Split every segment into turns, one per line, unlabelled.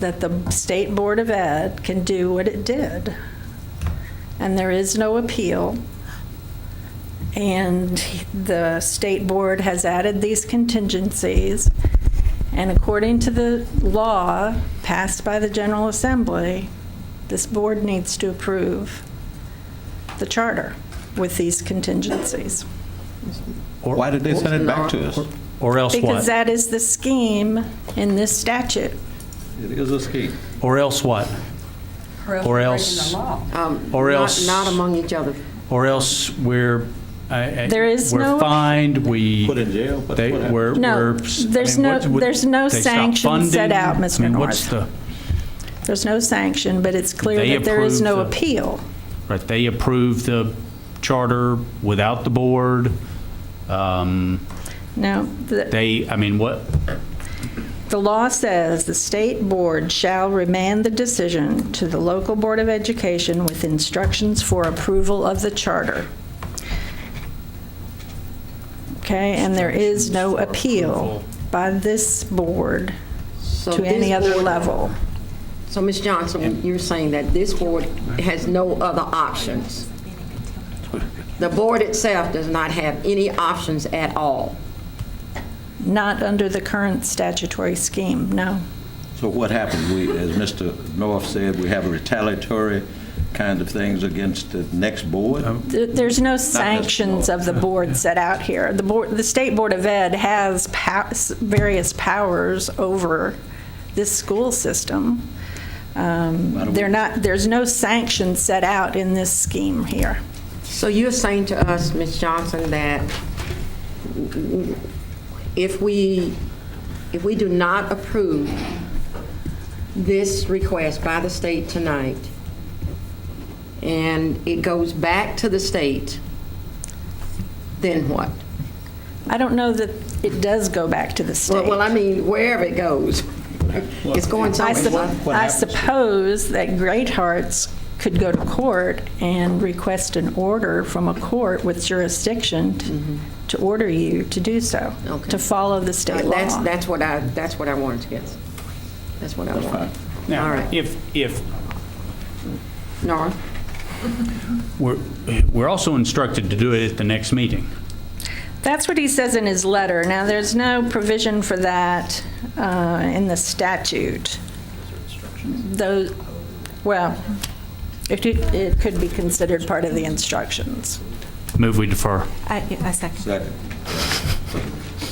that the State Board of Ed can do what it did. And there is no appeal. And the state board has added these contingencies. And according to the law passed by the General Assembly, this board needs to approve the charter with these contingencies.
Or-
Why did they send it back to us?
Or else
Because
what?
that is the scheme in this statute.
It is a scheme.
Or else what? Or else,
Um,
Or
not-
else-
Not among each other.
or else we're, I- I-
There is no-
We're fined, we.
Put in jail, but
they-
what happened?
we're-
No,
we're- I
there's
mean,
no-
what- what-
there's no
they stop
sanction set
funding?
out, Mr.
I mean, what's the,
There's no sanction, but it's clear
They
that there is
approved
no
the-
appeal.
right, they approved the charter without the board. Um,
Now, the-
They, I mean, what,
The law says the state board shall remand the decision to the local Board of Education with instructions for approval of the charter. Okay, and there is no appeal by this board
So
to any
this
other
board-
level.
So Ms. Johnson, you're saying that this board has no other options? The board itself does not have any options at all?
Not under the current statutory scheme, no.
So what happened? We, as Mr. North said, we have retaliatory kind of things against the next board?
There- There's no sanctions of the board set out here. The board, the State Board of Ed has pow- s- various powers over this school system. Um, They're not, there's no sanction set out in this scheme here.
So you're saying to us, Ms. Johnson, that if we, if we do not approve this request by the state tonight, and it goes back to the state, then what?
I don't know that it does go back to the
Well,
state.
well, I mean, wherever it goes, it's going
I sup-
somewhere.
I suppose that Great Hearts could go to court and request an order from a court with jurisdiction t- to order you to do so,
Mm-hmm. Okay.
to follow the state law.
That's, that's what I, that's what I wanted to get. That's what I wanted. All
now,
right.
if, if,
Nora?
we're, we're also instructed to do it at the next meeting.
That's what he says in his letter. Now, there's no provision for that uh, in the statute. Though, well, it could- it could be considered part of the instructions.
Move we defer.
I, I second.
Second.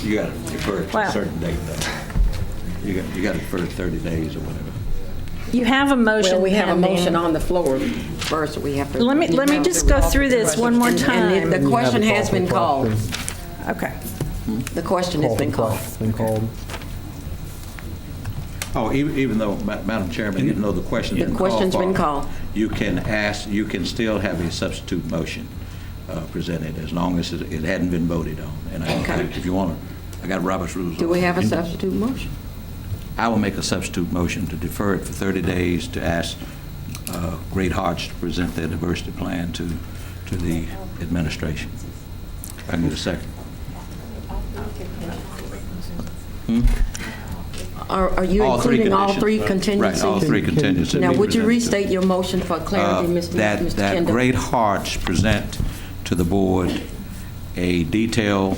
You got to defer it to a
Wow.
certain date, though. You got, you got to defer it 30 days or whatever.
You have a motion
Well, we have a
pending.
motion on the floor first, we have to.
Let me- let me just go through this one more
And- And
time.
if the question has been called.
Okay.
The question has been called.
Been called.
Oh, even, even though, Ma- Madam Chairman, even though the question's
The
been called
question's been
for,
called.
You can ask, you can still have a substitute motion uh, presented, as long as it it hadn't been voted on. And I,
Okay.
if you want to, I got Robert's rules.
Do
on
we
it.
have a substitute motion?
I will make a substitute motion to defer it for 30 days to ask uh, Great Hearts to present their diversity plan to, to the administration. I need a second.
Are are you
All three
including all
conditions.
three
Right,
contingencies?
Right, all three contingencies.
Now,
be
would you
presented.
restate your motion for clarity,
Uh,
Mr.
that-
Mr.
That
Kendall?
Great Hearts present to the board a detail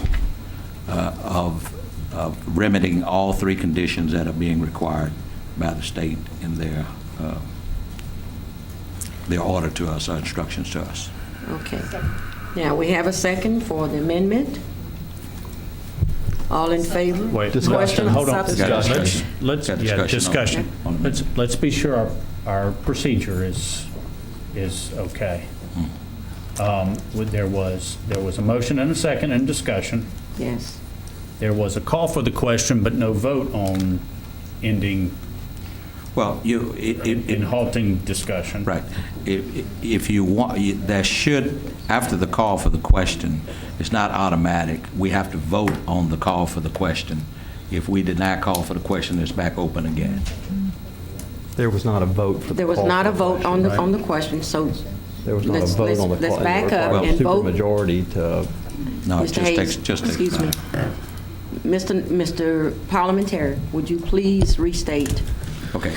uh, of of remedying all three conditions that are being required by the state in their, uh, their order to us, our instructions to us.
Okay. Now, we have a second for the amendment. All in favor?
Wait,
Question
discussion, hold on.
substitute.
Got discussion.
Let's, let's,
Got
yeah,
discussion on- Mm-hmm.
discussion.
on the-
Let's, let's be sure our, our procedure is, is okay.
Mm-hmm.
Um, with- There was, there was a motion and a second and discussion.
Yes.
There was a call for the question, but no vote on ending
Well, you, it- it- it-
and halting discussion.
Right. If if you want, you- there should, after the call for the question, it's not automatic. We have to vote on the call for the question. If we deny call for the question, it's back open again.
There was not a vote for the
There was
call
not
for
a vote on the,
question,
on
right?
the question, so.
There was not a
let's-
vote
let's-
on the.
Let's
call- it
back up
required
and vote.
Supermajority to,
No, it
Mr.
just
Hayes,
takes, just takes.
Excuse me. Mr. Mr. Parliamentary, would you please restate?
Okay.